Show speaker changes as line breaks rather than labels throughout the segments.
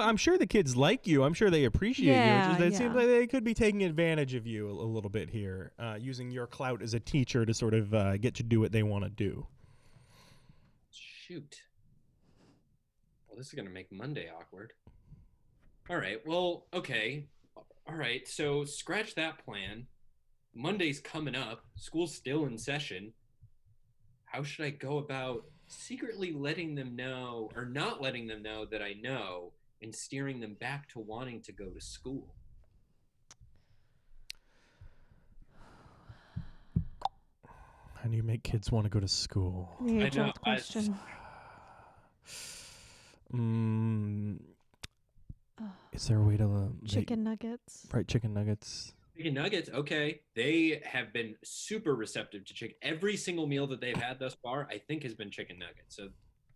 I'm sure the kids like you. I'm sure they appreciate you. It's
Yeah,
just that It
yeah.
seems like they could be taking advantage of you a, a little bit here, uh, using your clout as a teacher to sort of uh, get to do what they want to do.
Shoot. Well, this is going to make Monday awkward. All right. Well, okay. All right. So scratch that plan. Monday's coming up. School's still in session. How should I go about secretly letting them know or not letting them know that I know and steering them back to wanting to go to school?
How do you make kids want to go to school?
The
I
age old
know, I just-
question.
Mm,
Ugh.
is there a way to uh, make-
Chicken nuggets.
right chicken nuggets?
Chicken nuggets, okay. They have been super receptive to chicken. Every single meal that they've had thus far, I think, has been chicken nuggets. So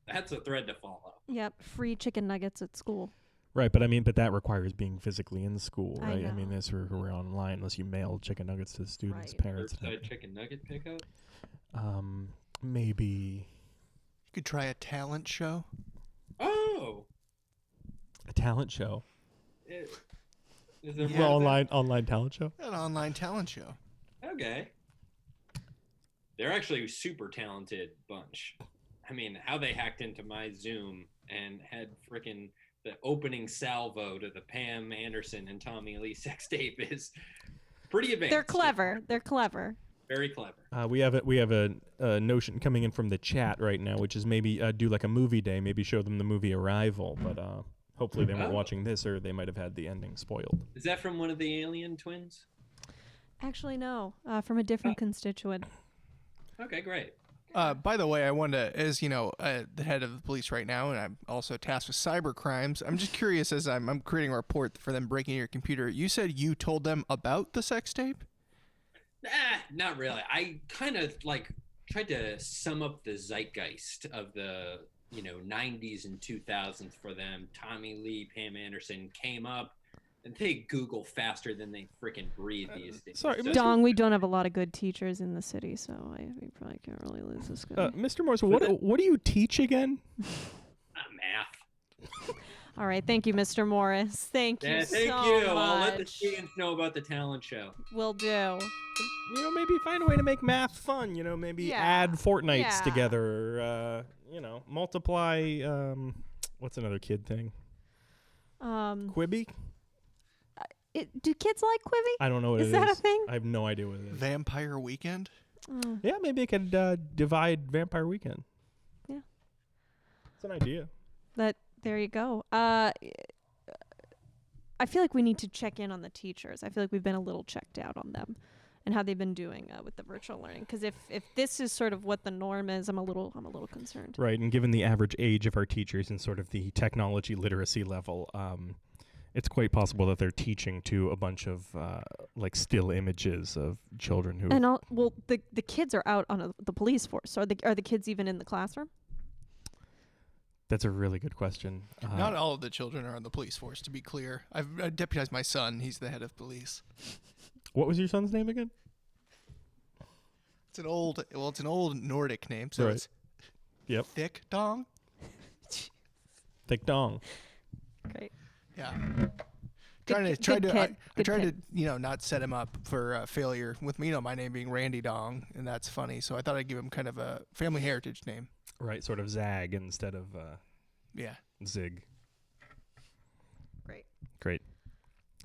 that's a thread to follow.
Yep, free chicken nuggets at school.
Right, but I mean, but that requires being physically in school,
I
right? I, mean,
know.
this we're, we're online unless you mail chicken nuggets to the students'
Right.
parents. and
Curbside
everything.
chicken nugget pickup.
Um, maybe
You could try a talent show.
Oh,
a talent show,
it, is there
Yeah.
well,
more to that?
online online talent show.
An online talent show.
Okay. They're actually a super talented bunch. I mean, how they hacked into my Zoom and had frickin' the opening salvo to the Pam Anderson and Tommy Lee sex tape is pretty advanced.
They're clever. They're clever.
Very clever.
Uh, we have a, we have a, a notion coming in from the chat right now, which is maybe uh, do like a movie day, maybe show them the movie Arrival, but uh, hopefully they weren't
Oh.
watching this, or they might have had the ending spoiled.
Is that from one of the alien twins?
Actually, no. Uh, from a different constituent.
Okay, great.
Uh, by the way, I wanted to, as you know, uh, the head of the police right now, and I'm also tasked with cyber crimes. I'm just curious as I'm, I'm creating a report for them breaking your computer. You said you told them about the sex tape?
Ah, not really. I kind of like tried to sum up the zeitgeist of the you know 90s and 2000s for them. Tommy Lee, Pam Anderson came up, and they Google faster than they freaking breathe
Uh,
these days.
sorry, Mr.
Dong, we don't have a lot of good teachers in the city, so I we probably can't really lose this guy.
Uh, Mr. Morse, what what do you teach again?
Ah, math.
All right, thank you, Mr. Morris. Thank
Yeah,
you
thank
so
you.
much.
I'll let the students know about the talent show.
Will do.
You know, maybe find a way to make math fun. You know, maybe
Yeah.
add fortnights
Yeah.
together. Uh, you know, multiply. Um, what's another kid thing?
Um,
Quibi?
it, do kids like Quibi?
I don't know what
Is
it
that a thing?
I have no idea what it is.
Vampire Weekend?
Oh,
yeah, maybe it could uh, divide Vampire Weekend.
Yeah.
it's an idea.
that there you go. Uh, I feel like we need to check in on the teachers. I feel like we've been a little checked out on them and how they've been doing uh, with the virtual learning. Because if if this is sort of what the norm is, I'm a little I'm a little concerned.
Right, and given the average age of our teachers and sort of the technology literacy level, um, it's quite possible that they're teaching to a bunch of uh, like still images of children who.
And all well, the the kids are out on a, the police force. So are the are the kids even in the classroom?
That's a really good question. Uh,
Not all of the children are on the police force, to be clear. I've I deputized my son. He's the head of police.
what was your son's name again?
It's an old, well, it's an old Nordic name, so
Right.
it's
Yep,
Thick Dong.
Thick Dong.
Great.
Yeah. Trying to
ki-
try
good
to I,
kid,
I
good
tried
kid.
to you know not set him up for uh, failure with me you know my name being Randy Dong and that's funny so I thought I'd give him kind of a family heritage name
Right, sort of Zag instead of uh,
yeah
Zig.
Great.
Great.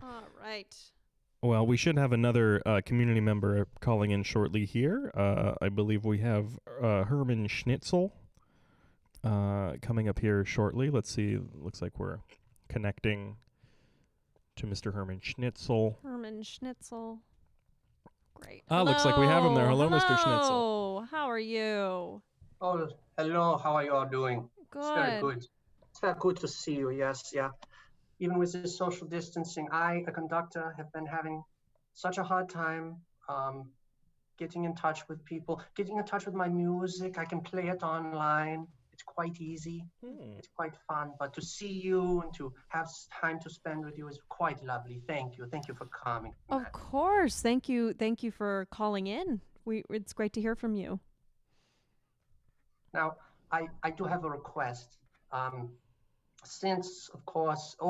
All right.
Well, we should have another uh, community member calling in shortly here. Uh, I believe we have uh, Herman Schnitzel uh, coming up here shortly. Let's see. Looks like we're connecting to Mr. Herman Schnitzel.
Herman Schnitzel. Great.
Ah, looks like we have him there. Hello, Mr. Schnitzel.
Hello. How are you?
Oh, hello. How are you all doing? It's very good. It's very good to see you. Yes, yeah. Even with this social distancing, I, a conductor, have been having such a hard time um, getting in touch with people, getting in touch with my music. I can play it online. It's quite easy.
Hmm.
It's quite fun. But to see you and to have s- time to spend with you is quite lovely. Thank you. Thank you for coming.
Of course. Thank you. Thank you for calling in. We it's great to hear from you.
Now, I, I do have a request. Um, since, of course,